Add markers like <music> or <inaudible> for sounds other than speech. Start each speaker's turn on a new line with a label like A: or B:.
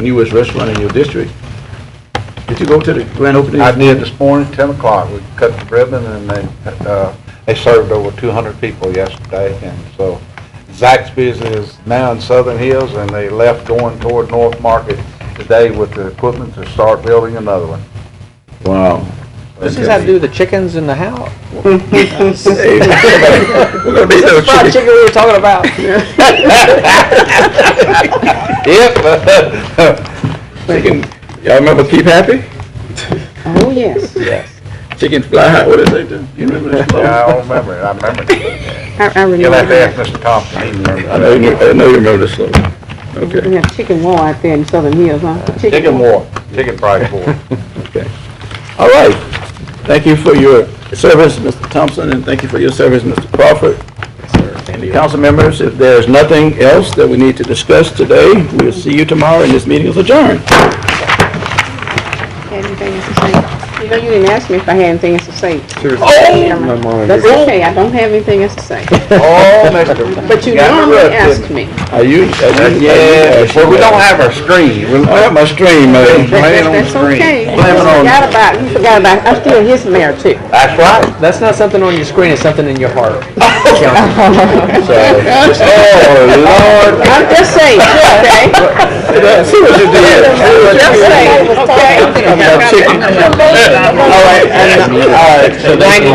A: newest restaurant in your district. Did you go to the grand opening?
B: I did this morning, 10 o'clock, we cut the ribbon, and they, uh, they served over 200 people yesterday, and so Zaxby's is now in Southern Hills, and they left going toward North Market today with the equipment to start building another one.
A: Wow.
C: This is how to do the chickens in the house.
A: <laughs> We're
B: <laughs>
A: gonna be no chicken.
C: Fried chicken we were talking about.
B: Yep.
A: Chicken. Y'all remember Keep Happy?
D: Oh, yes.
A: Chicken fly high, what is that? You remember that?
B: <laughs> Yeah, I don't remember it, I remember it.
D: I, I
B: You'll have
D: remember
B: to ask
D: that.
B: Mr. Thompson, he remembers
A: I know,
B: that.
A: you- I know you remember the slogan. Okay.
D: We have chicken war out there in Southern Hills, huh?
B: Chicken war, chicken fried war.
A: All right. Thank you for your service, Mr. Thompson, and thank you for your service, Mr. Crawford. And the council members, if there's nothing else that we need to discuss today, we'll see you tomorrow, and this meeting is adjourned.
D: Had anything else to say? You know, you didn't ask me if I had anything else to say.
C: mind.
D: That's okay, I don't have anything else
B: <laughs>
D: to say.
B: <laughs> Oh, Mr.
D: But you
B: got me
D: normally
B: rubbed, didn't
D: ask
B: you?
D: me.
A: Are you? are you-
B: <laughs> Yeah, well, we don't have our screen. We're-
A: I have my stream, eh? man.
B: Blame it
D: That-
B: on
D: That's
B: the screen.
D: okay. You
B: Blame it on-
D: forgot about, you forgot about, I'm still his mayor too.
B: That's right.
C: That's not something on your screen, it's something in your heart.
B: <laughs>
A: So, oh, Lord.
D: I'm just saying, okay?
A: See what you
D: Just
A: did.
D: saying, okay?
A: About chicken. uh, All right, and, all right, so thank you.